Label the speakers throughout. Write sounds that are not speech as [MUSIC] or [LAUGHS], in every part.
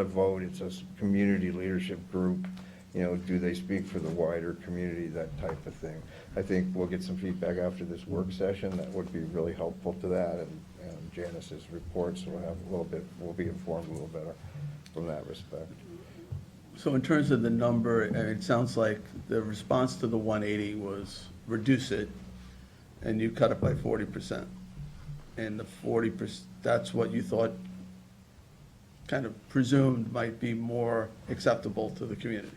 Speaker 1: a vote, it's a s- community leadership group, you know, do they speak for the wider community, that type of thing. I think we'll get some feedback after this work session, that would be really helpful to that, and and Janice's reports will have a little bit, we'll be informed a little better from that respect.
Speaker 2: So in terms of the number, I mean, it sounds like the response to the 180 was reduce it, and you cut it by 40%. And the 40%, that's what you thought, kind of presumed might be more acceptable to the community.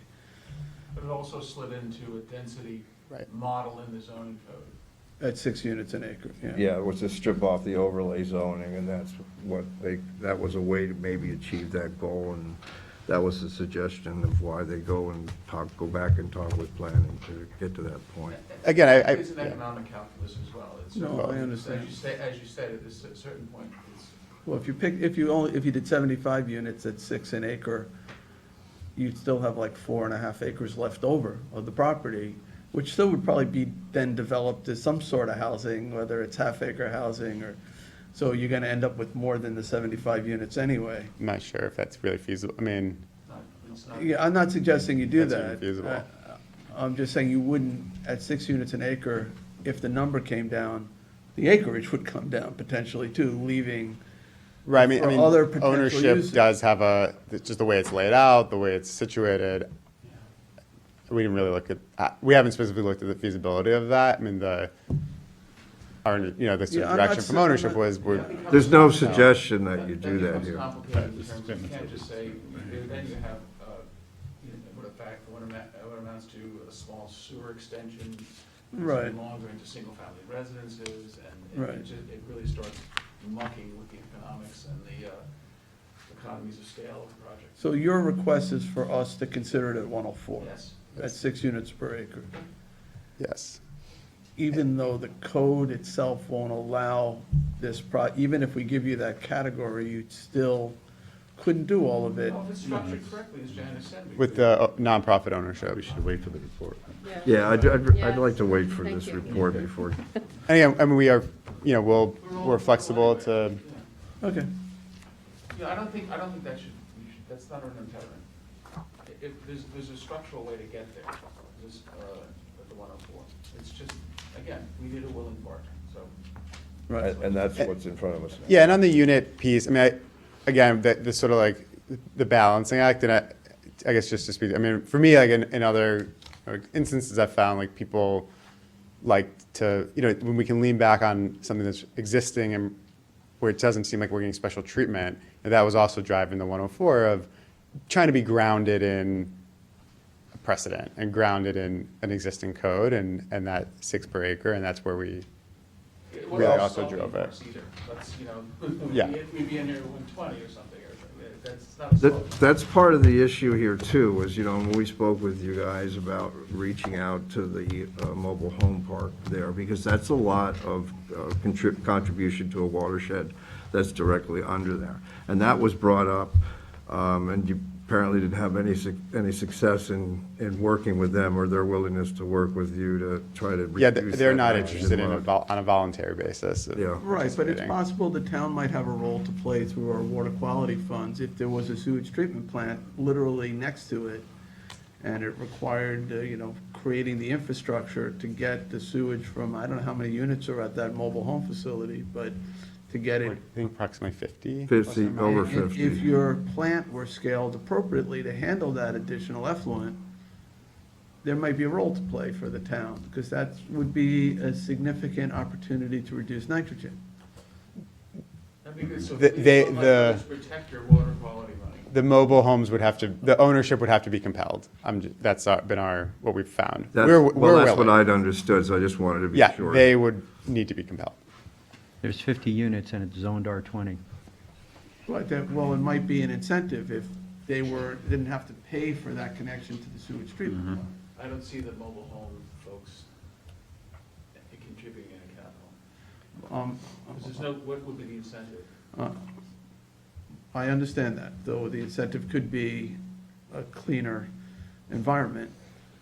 Speaker 3: But it also slid into a density
Speaker 2: Right.
Speaker 3: model in the zoning code.
Speaker 2: At six units an acre, yeah.
Speaker 1: Yeah, it was to strip off the overlay zoning, and that's what they, that was a way to maybe achieve that goal, and that was the suggestion of why they go and talk, go back and talk with planning to get to that point.
Speaker 4: Again, I- I-
Speaker 3: It's an
Speaker 4: yeah.
Speaker 3: economic calculus as well. It's
Speaker 2: No,
Speaker 3: certainly-
Speaker 2: I understand.
Speaker 3: As you say, as you said, at this certain point, it's,
Speaker 2: Well, if you pick, if you only, if you did 75 units at six an acre, you'd still have like four and a half acres left over of the property, which still would probably be then developed as some sort of housing, whether it's half acre housing or, so you're gonna end up with more than the 75 units anyway.
Speaker 4: I'm not sure if that's really feasible. I mean,
Speaker 3: not, it's not.
Speaker 2: Yeah, I'm not suggesting you do that.
Speaker 4: That's infeasible.
Speaker 2: I- I'm just saying you wouldn't, at six units an acre, if the number came down, the acreage would come down potentially too, leaving
Speaker 4: right, I mean, I
Speaker 2: For
Speaker 4: mean,
Speaker 2: other potential
Speaker 4: ownership
Speaker 2: uses.
Speaker 4: does have a, it's just the way it's laid out, the way it's situated. We didn't really look at, uh, we haven't specifically looked at the feasibility of that. I mean, the, our, you know, the sort
Speaker 2: Yeah,
Speaker 4: of
Speaker 2: I'm not
Speaker 4: direction
Speaker 2: s-
Speaker 4: from
Speaker 2: I'm
Speaker 4: ownership
Speaker 2: not-
Speaker 4: was, we're,
Speaker 1: There's no suggestion that you do
Speaker 3: Then
Speaker 1: that
Speaker 3: becomes
Speaker 1: here.
Speaker 3: complicated in terms of, you can't just say, you- then you have, uh, you know, what a fact, what ama- what amounts to a small sewer extension,
Speaker 2: Right.
Speaker 3: it's longer into single-family residences, and it-
Speaker 2: Right.
Speaker 3: it just, it really starts mucking with the economics and the uh, economies of scale of the project.
Speaker 2: So your request is for us to consider it at 104?
Speaker 3: Yes.
Speaker 2: At six units per acre,
Speaker 4: yes.
Speaker 2: even though the code itself won't allow this pro, even if we give you that category, you still couldn't do all of it.
Speaker 3: Well, if it's structured correctly, as Janice said. we
Speaker 4: With
Speaker 3: could-
Speaker 4: the uh, nonprofit ownership.
Speaker 5: wait for the report.
Speaker 1: Yeah, I'd, I'd I'd like to wait for
Speaker 6: Thank
Speaker 1: this
Speaker 6: you.
Speaker 1: report before,
Speaker 4: And again, I mean, we are, you know, we'll,
Speaker 3: We're all-
Speaker 4: we're flexible
Speaker 3: anyway,
Speaker 4: to,
Speaker 3: yeah.
Speaker 2: Okay,
Speaker 3: Yeah, I don't think, I don't think that should, you should, that's not an impediment. I- If, there's, there's a structural way to get there, this, uh, at the one oh four. It's just, again, we need a willing partner, so.
Speaker 2: right.
Speaker 1: and and that's what's in front of us now.
Speaker 4: yeah, and on the unit piece, I mean, I, again, that, this sort of like, the balancing act, and I, I guess just to speak, I mean, for me, like in, in other like, instances, I've found like people like to, you know, when we can lean back on something that's existing and where it doesn't seem like we're getting special treatment, and that was also driving the 104 of trying to be grounded in a precedent and grounded in an existing code and, and that six per acre, and that's where we,
Speaker 3: it
Speaker 4: Really
Speaker 3: wasn't
Speaker 4: also
Speaker 3: solving
Speaker 4: drove
Speaker 3: for
Speaker 4: it.
Speaker 3: us either. Let's, you know, [LAUGHS] we'd
Speaker 4: Yeah.
Speaker 3: be- we'd be in here one twenty or something, or, something. that's not a solve.
Speaker 1: That, that's part of the issue here too, was, you know, when we spoke with you guys about reaching out to the uh, mobile home park there, because that's a lot of uh, contrib- contribution to a watershed that's directly under there. And that was brought up, um, and you apparently didn't have any, suc- any success in, in working with them or their willingness to work with you to try to reduce
Speaker 4: yeah, th- they're
Speaker 1: that
Speaker 4: not
Speaker 1: nitrogen
Speaker 4: interested in, a
Speaker 1: load.
Speaker 4: vol- on a voluntary basis. of
Speaker 1: Yeah.
Speaker 2: Right, but it's
Speaker 4: participating.
Speaker 2: possible the town might have a role to play through our water quality funds if there was a sewage treatment plant literally next to it, and it required, uh, you know, creating the infrastructure to get the sewage from, I don't know how many units are at that mobile home facility, but to get
Speaker 4: I
Speaker 2: it
Speaker 4: think approximately 50.
Speaker 1: Fifty, over
Speaker 2: If-
Speaker 1: fifty.
Speaker 2: If your plant were scaled appropriately to handle that additional effluent, there might be a role to play for the town, because that would be a significant opportunity to reduce nitrogen.
Speaker 3: That'd be good, so.
Speaker 4: The-
Speaker 3: if you
Speaker 4: they-
Speaker 3: don't like
Speaker 4: the-
Speaker 3: this, Protect your water quality money.
Speaker 4: The mobile homes would have to, the ownership would have to be compelled. I'm, ju- that's our- been our, what we've found.
Speaker 1: That's-
Speaker 4: We're-
Speaker 1: Well,
Speaker 4: we're
Speaker 1: that's what
Speaker 4: willing.
Speaker 1: I'd understood, so I just wanted to be
Speaker 4: Yeah,
Speaker 1: sure.
Speaker 4: they would need to be compelled.
Speaker 7: There's 50 units and it's zoned R20.
Speaker 2: But that, well, it might be an incentive if they were, didn't have to pay for that connection to the sewage treatment plant.
Speaker 3: I don't see the mobile home folks contributing any capital.
Speaker 2: Um,
Speaker 3: Because there's no, what would be the incentive?
Speaker 2: uh, I understand that, though the incentive could be a cleaner environment.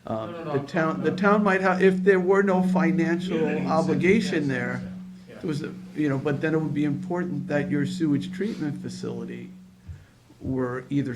Speaker 2: Uh,
Speaker 3: No, no, no,
Speaker 2: The
Speaker 3: I'm-
Speaker 2: town, the
Speaker 3: I'm-
Speaker 2: town might have, if there were no
Speaker 3: Yeah,
Speaker 2: financial
Speaker 3: any incentive,
Speaker 2: obligation
Speaker 3: yes,
Speaker 2: there,
Speaker 3: yes,
Speaker 2: it
Speaker 3: yeah.
Speaker 2: was, you know, but then it would be important that your sewage treatment facility were either